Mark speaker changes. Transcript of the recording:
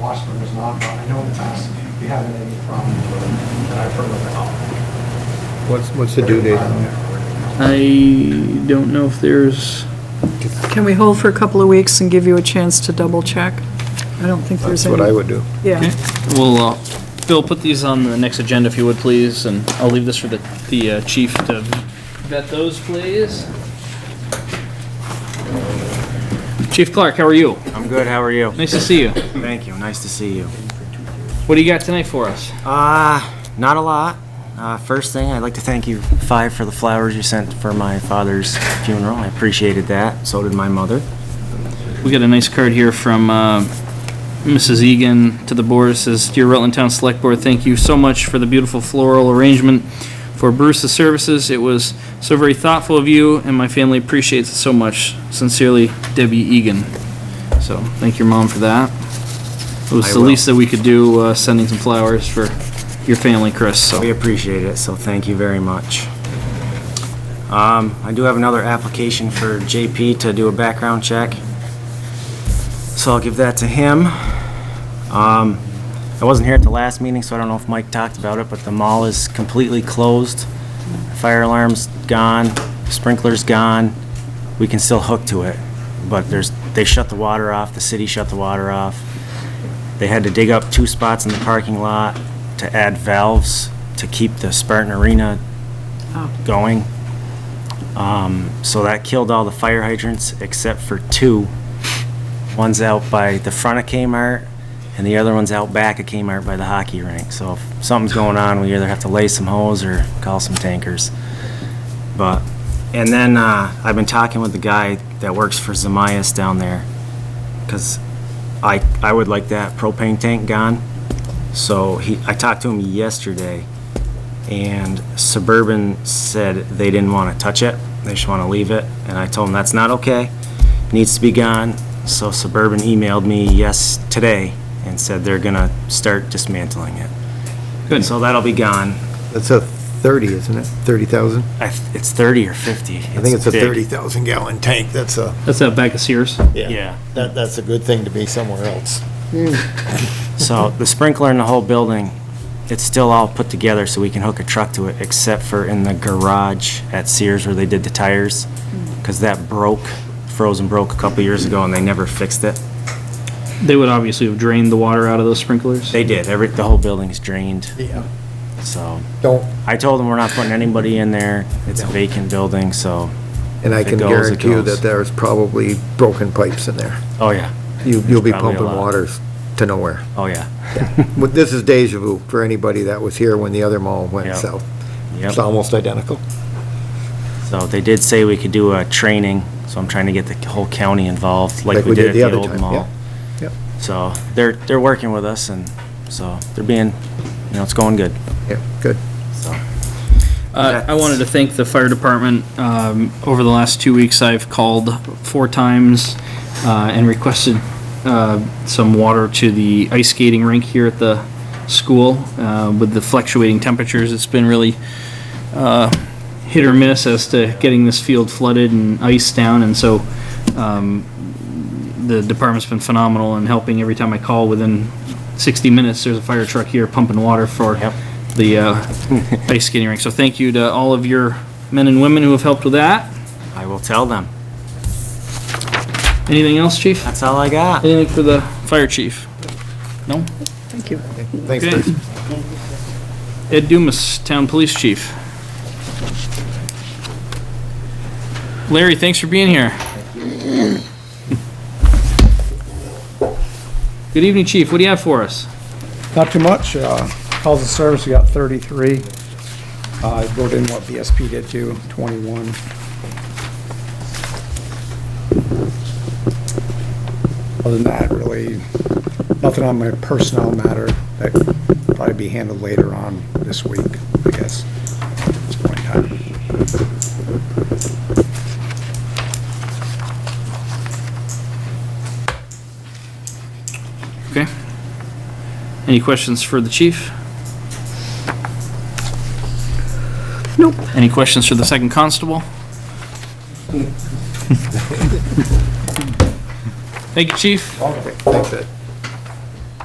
Speaker 1: Washburn is not, but I know in the past we haven't had any problem with it that I've heard about.
Speaker 2: What's, what's the due date on that?
Speaker 3: I don't know if there's,
Speaker 4: Can we hold for a couple of weeks and give you a chance to double check? I don't think there's
Speaker 2: That's
Speaker 4: any.
Speaker 2: what I would do.
Speaker 3: okay,
Speaker 4: Yeah,
Speaker 3: well, uh, Phil, put these on the next agenda if you would, please, and I'll leave this for the, the uh, chief to vet those, please. Chief Clark, how are you?
Speaker 5: I'm good, how are you?
Speaker 3: Nice to see you.
Speaker 5: Thank you, nice to see you.
Speaker 3: What do you got tonight for us?
Speaker 5: Uh, not a lot. Uh, first thing, I'd like to thank you five for the flowers you sent for my father's funeral. I appreciated that, so did my mother.
Speaker 3: We got a nice card here from uh, Mrs. Egan to the board. It Says, "Dear Rutland Town Select Board, thank you so much for the beautiful floral arrangement for Bruce's services. It was so very thoughtful of you, and my family appreciates it so much. Sincerely, Debbie Egan." So, thank your mom for that. It was
Speaker 5: I
Speaker 3: the
Speaker 5: will.
Speaker 3: least that we could do, uh, sending some flowers for your family, Chris,
Speaker 5: We
Speaker 3: so.
Speaker 5: appreciate it, so thank you very much. Um, I do have another application for JP to do a background check. So I'll give that to him. Um, I wasn't here at the last meeting, so I don't know if Mike talked about it, but the mall is completely closed. Fire alarm's gone, sprinkler's gone. We can still hook to it, but there's, they shut the water off, the city shut the water off. They had to dig up two spots in the parking lot to add valves to keep the Spartan Arena going. Um, so that killed all the fire hydrants except for two. One's out by the front of Kmart and the other one's out back of Kmart by the hockey rink. So if something's going on, we either have to lay some hose or call some tankers. But, and then, uh, I've been talking with the guy that works for Zamias down there. Cause I, I would like that propane tank gone. So he, I talked to him yesterday and Suburban said they didn't want to touch it. They just want to leave it. And I told them that's not okay. Needs to be gone. So Suburban emailed me yes today and said they're going to start dismantling it.
Speaker 3: Good.
Speaker 5: So that'll be gone.
Speaker 2: That's a 30, isn't it? 30,000?
Speaker 5: I, th- it's 30 or 50.
Speaker 2: I think it's a
Speaker 5: big.
Speaker 2: 30,000 gallon tank. That's a,
Speaker 3: That's that bag of Sears.
Speaker 5: Yeah.
Speaker 6: That, that's a good thing to be somewhere else.
Speaker 5: So the sprinkler in the whole building, it's still all put together so we can hook a truck to it, except for in the garage at Sears where they did the tires, because that broke, frozen broke a couple years ago and they never fixed it.
Speaker 3: They would obviously have drained the water out of those sprinklers.
Speaker 5: They did, every, the whole building's drained,
Speaker 6: Yeah.
Speaker 5: so.
Speaker 2: don't,
Speaker 5: I told them we're not putting anybody in there, it's a vacant building, so,
Speaker 2: and I
Speaker 5: If it
Speaker 2: can
Speaker 5: goes, it
Speaker 2: guarantee you
Speaker 5: goes.
Speaker 2: that there's probably broken pipes in there.
Speaker 5: oh yeah,
Speaker 2: You, you'll be
Speaker 5: Probably a
Speaker 2: pumping
Speaker 5: lot.
Speaker 2: waters to nowhere.
Speaker 5: oh yeah.
Speaker 2: Well, This is deja vu for anybody that was here when the other mall went
Speaker 5: Yep.
Speaker 2: south.
Speaker 5: Yep.
Speaker 2: It's almost identical.
Speaker 5: So they did say we could do a training, so I'm trying to get the whole county involved, like we did at the
Speaker 2: other
Speaker 5: old
Speaker 2: time,
Speaker 5: mall.
Speaker 2: yeah,
Speaker 5: So they're, they're working with us and so they're being, you know, it's going good,
Speaker 2: Yeah, good.
Speaker 5: so.
Speaker 3: Uh, I wanted to thank the fire department. Um, Over the last two weeks, I've called four times uh, and requested uh, some water to the ice skating rink here at the school. Uh, With the fluctuating temperatures, it's been really uh, hit or miss as to getting this field flooded and iced down. And so um, the department's been phenomenal in helping. Every time I call, within 60 minutes, there's a fire truck here pumping water for
Speaker 5: Yep.
Speaker 3: the uh, ice skating rink. So thank you to all of your men and women who have helped with that.
Speaker 5: I will tell them.
Speaker 3: Anything else, chief?
Speaker 5: That's all I got.
Speaker 3: Anything for the fire chief? No?
Speaker 4: thank you.
Speaker 2: Thanks,
Speaker 3: Okay.
Speaker 2: Bruce.
Speaker 3: Ed Dumas, town police chief. Larry, thanks for being here. Good evening, chief. What do you have for us?
Speaker 1: Not too much. Uh, Calls of service, we got 33. Uh, I wrote in what BSP did too, 21. Other than that, really, nothing on my personnel matter that could probably be handled later on this week, I guess, at this point in time.
Speaker 3: Okay. Any questions for the chief?
Speaker 4: Nope.
Speaker 3: Any questions for the second constable? Thank you, chief.
Speaker 2: Thanks, Ed.